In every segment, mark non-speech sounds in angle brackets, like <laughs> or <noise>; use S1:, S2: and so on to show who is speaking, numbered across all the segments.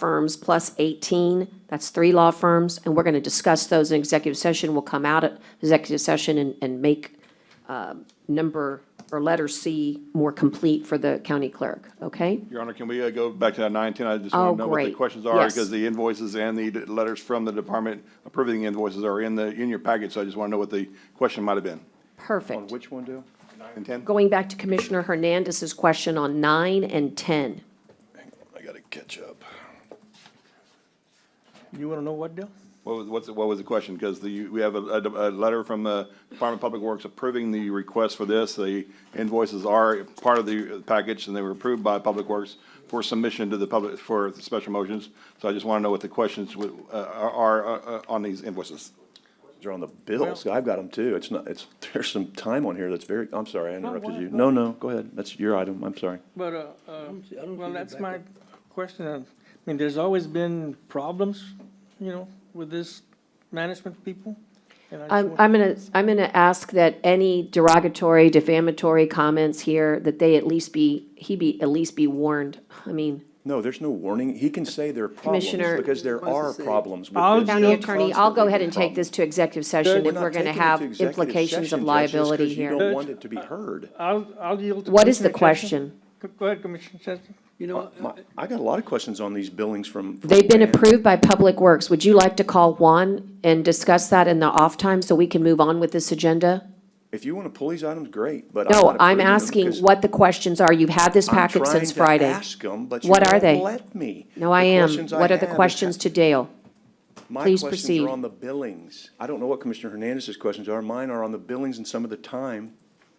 S1: firms plus 18, that's three law firms, and we're going to discuss those in executive session. We'll come out at executive session and, and make uh, number or letter C more complete for the county clerk, okay?
S2: Your Honor, can we uh, go back to that nine, ten? I just
S1: Oh,
S2: want to know what the
S1: great.
S2: questions are.
S1: Yes.
S2: Because the invoices and the d- letters from the department approving the invoices are in the, in your package, so I just want to know what the question might have been.
S1: Perfect.
S2: Which one, Dale? Nine and ten?
S1: Going back to Commissioner Hernandez's question on nine and 10.
S2: I gotta catch up.
S3: You wanna know what, Dale?
S2: What was, what's, what was the question? Because the, we have a, a, a letter from the Department of Public Works approving the request for this. The invoices are part of the uh, package, and they were approved by Public Works for submission to the public, for special motions. So I just want to know what the questions wi- uh, are, are, uh, on these invoices.
S4: They're on the bills. I've got them too. It's not, it's, there's some time on here that's very, I'm sorry, I interrupted
S3: why-
S4: you. No, no, go ahead. That's your item. I'm sorry.
S3: But, uh, uh, well, that's my question. I mean, there's always been problems, you know, with this management people. and I just
S1: I'm,
S3: want-
S1: I'm going to, I'm going to ask that any derogatory, defamatory comments here, that they at least be, he be, at least be warned. I mean,
S4: No, there's no warning. He can say there are problems
S1: Commissioner-
S4: because there are problems
S3: I'll-
S4: with this.
S1: County
S3: Still
S1: Attorney, I'll go
S4: constantly
S1: ahead
S4: a
S1: and take
S4: problem.
S1: this to executive session if
S4: not
S1: we're going to
S4: taking it
S1: have
S4: to executive
S1: implications
S4: session,
S1: of
S4: Judge, just 'cause
S1: liability
S4: You
S1: here.
S4: don't want it to be heard.
S3: I'll, I'll yield to.
S1: What is the
S3: Commissioner Chesney.
S1: question?
S3: Go- Go ahead, Commissioner Chesney.
S5: You know,
S4: My- I got a lot of questions on these billings from. from
S1: They've been
S4: Van.
S1: approved by Public Works. Would you like to call Juan and discuss that in the off time so we can move on with this agenda?
S4: If you want to pull these items, great, but.
S1: No,
S4: not
S1: I'm
S4: approving them
S1: asking
S4: because
S1: what the questions are. You've had this
S4: I'm
S1: packet
S4: trying
S1: since
S4: to
S1: Friday.
S4: ask 'em, but you
S1: What are
S4: won't
S1: they?
S4: Let me.
S1: No, I
S4: The
S1: am.
S4: questions I
S1: What are the
S4: have is-
S1: questions to Dale? Please
S4: My questions
S1: proceed.
S4: are on the billings. I don't know what Commissioner Hernandez's questions are. Mine are on the billings and some of the time.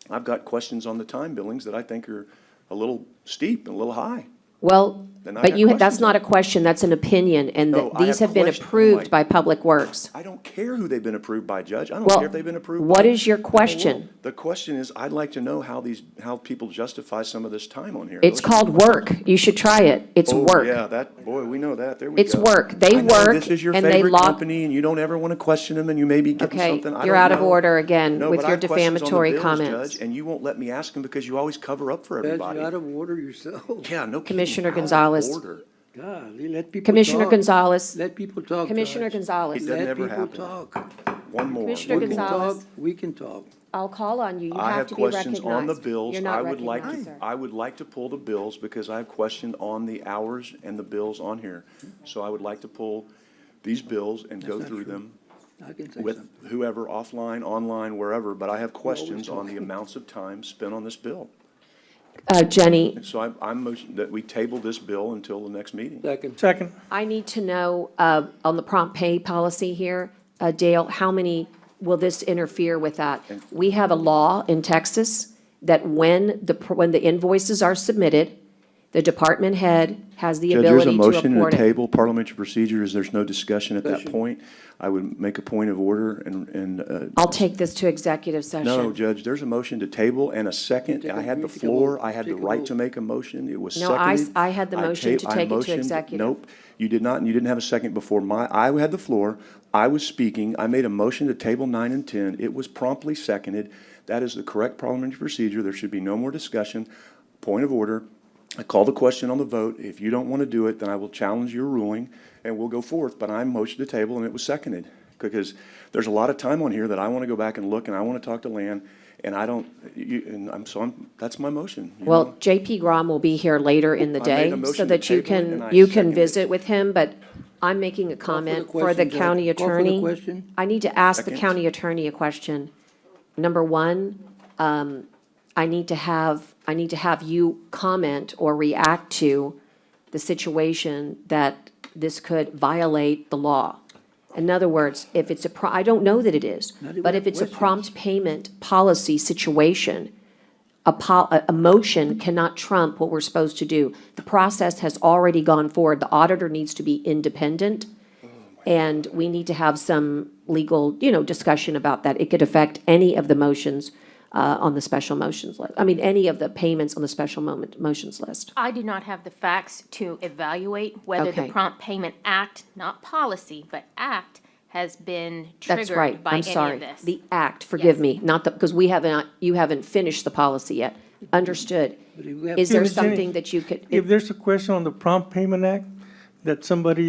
S4: I've got questions on the time billings that I think are a little steep and a little high.
S1: Well,
S4: Then I
S1: but
S4: got
S1: you, that's
S4: questions
S1: not a
S4: on
S1: question, that's an opinion, and
S4: No,
S1: that
S4: I
S1: these
S4: have
S1: have been
S4: question- oh
S1: approved
S4: my-
S1: by Public Works.
S4: I don't care who they've been approved by, Judge. I don't
S1: Well,
S4: care if they've been approved.
S1: what
S4: by-
S1: is your
S4: I don't know.
S1: question?
S4: The question is, I'd like to know how these, how people justify some of this time on here.
S1: It's
S4: Those are-
S1: called work, you should try it, it's
S4: Oh, Yeah,
S1: work.
S4: that, boy, we know that. There we go.
S1: It's work. They
S4: I know
S1: work
S4: This is your
S1: and they
S4: favorite
S1: lock-
S4: company and you don't ever want to question them and you may be getting
S1: Okay,
S4: something. I
S1: you're
S4: don't
S1: out of
S4: know.
S1: order again
S4: No,
S1: with
S4: but I
S1: your
S4: have questions on the
S1: defamatory
S4: bills,
S1: comments.
S4: Judge, And you won't let me ask them because you always cover up for
S5: Ed, you're out
S4: everybody.
S5: of order yourself.
S4: Yeah, no kidding.
S1: Commissioner
S4: Out of
S1: Gonzalez.
S4: order.
S5: <laughs> Golly, let people
S1: Commissioner
S5: talk.
S1: Gonzalez,
S5: Let people talk.
S1: Commissioner
S5: Judge.
S1: Gonzalez,
S4: It doesn't
S5: Let
S4: ever
S5: people
S4: happen.
S5: talk.
S4: One more.
S1: Commissioner
S4: one
S5: We can
S4: more.
S1: Gonzalez.
S5: talk, we can talk.
S1: I'll call on you, you
S4: I
S1: have
S4: have
S1: to be
S4: questions
S1: recognized.
S4: on the bills.
S1: You're
S4: I
S1: not
S4: would like,
S1: recognized,
S4: to.
S1: sir.
S4: I would like to pull the bills because I have questioned on the hours and the bills on here. So I would like to pull these bills and go through them
S5: I can say
S4: with
S5: something.
S4: whoever, offline, online, wherever, but I have questions on the amounts of time spent on this bill.
S1: Uh, Jenny,
S4: So I'm, I'm motion that we table this bill until the next meeting.
S5: Second,
S3: Second,
S1: I need to know, uh, on the prompt pay policy here, uh, Dale, how many will this interfere with that? We have a law in Texas that when the, pr- when the invoices are submitted, the department head has the
S4: Judge, there's a
S1: ability to report it.
S4: motion and a table. Parliamentary procedure is there's no discussion at that
S5: Discussion.
S4: point. I would make a point of order and, and, uh,
S1: I'll take this to executive session.
S4: no, Judge, there's a motion to table and a second.
S5: Take a-
S4: I had the
S5: take a vote.
S4: floor. I had the
S5: Take a
S4: right
S5: vote.
S4: to make a motion. It was
S1: No, I s-
S4: seconded.
S1: I had the motion
S4: ta-
S1: to
S4: I
S1: take it to
S4: motioned.
S1: executive.
S4: Nope, you did not, and you didn't have a second before my, I had the floor. I was speaking. I made a motion to table nine and 10. It was promptly seconded. That is the correct parliamentary procedure. There should be no more discussion. Point of order. I call the question on the vote. If you don't want to do it, then I will challenge your ruling and we'll go forth. But I motioned to table and it was seconded. Because there's a lot of time on here that I want to go back and look and I want to talk to Lan and I don't, you, and I'm, so I'm, that's my motion. you know?
S1: Well, JP Grom will be here later in the
S4: I made a
S1: day, so
S4: motion to
S1: that you
S4: table it, and
S1: can,
S4: I
S1: you can
S4: second it.
S1: visit with him, but I'm making a comment for the
S5: question, Judge.
S1: county
S5: Call for the
S1: attorney.
S5: question.
S1: I need to ask the
S4: Second.
S1: county attorney a question. Number one, um, I need to have, I need to have you comment or react to the situation that this could violate the law. In other words, if it's a, pro- I don't know that it is,
S5: Not even
S1: but
S5: a
S1: if it's a
S5: question.
S1: prompt payment policy situation, a pol, a, a motion cannot trump what we're supposed to do. The process has already gone forward. The auditor needs to be independent. And we need to have some legal, you know, discussion about that. It could affect any of the motions, uh, on the special motions list. I mean, any of the payments on the special moment, motions list.
S6: I do not have the facts to evaluate whether the
S1: Okay.
S6: Prompt Payment Act, not policy, but act, has been
S1: That's right.
S6: triggered by
S1: I'm
S6: any
S1: sorry.
S6: of this.
S1: The act, forgive
S6: Yes.
S1: me, not the, because we haven't, you haven't finished the policy yet. Understood.
S5: if we have-
S1: Is there
S3: If there's any-
S1: something that you could?
S3: if there's a question on the Prompt Payment Act, that somebody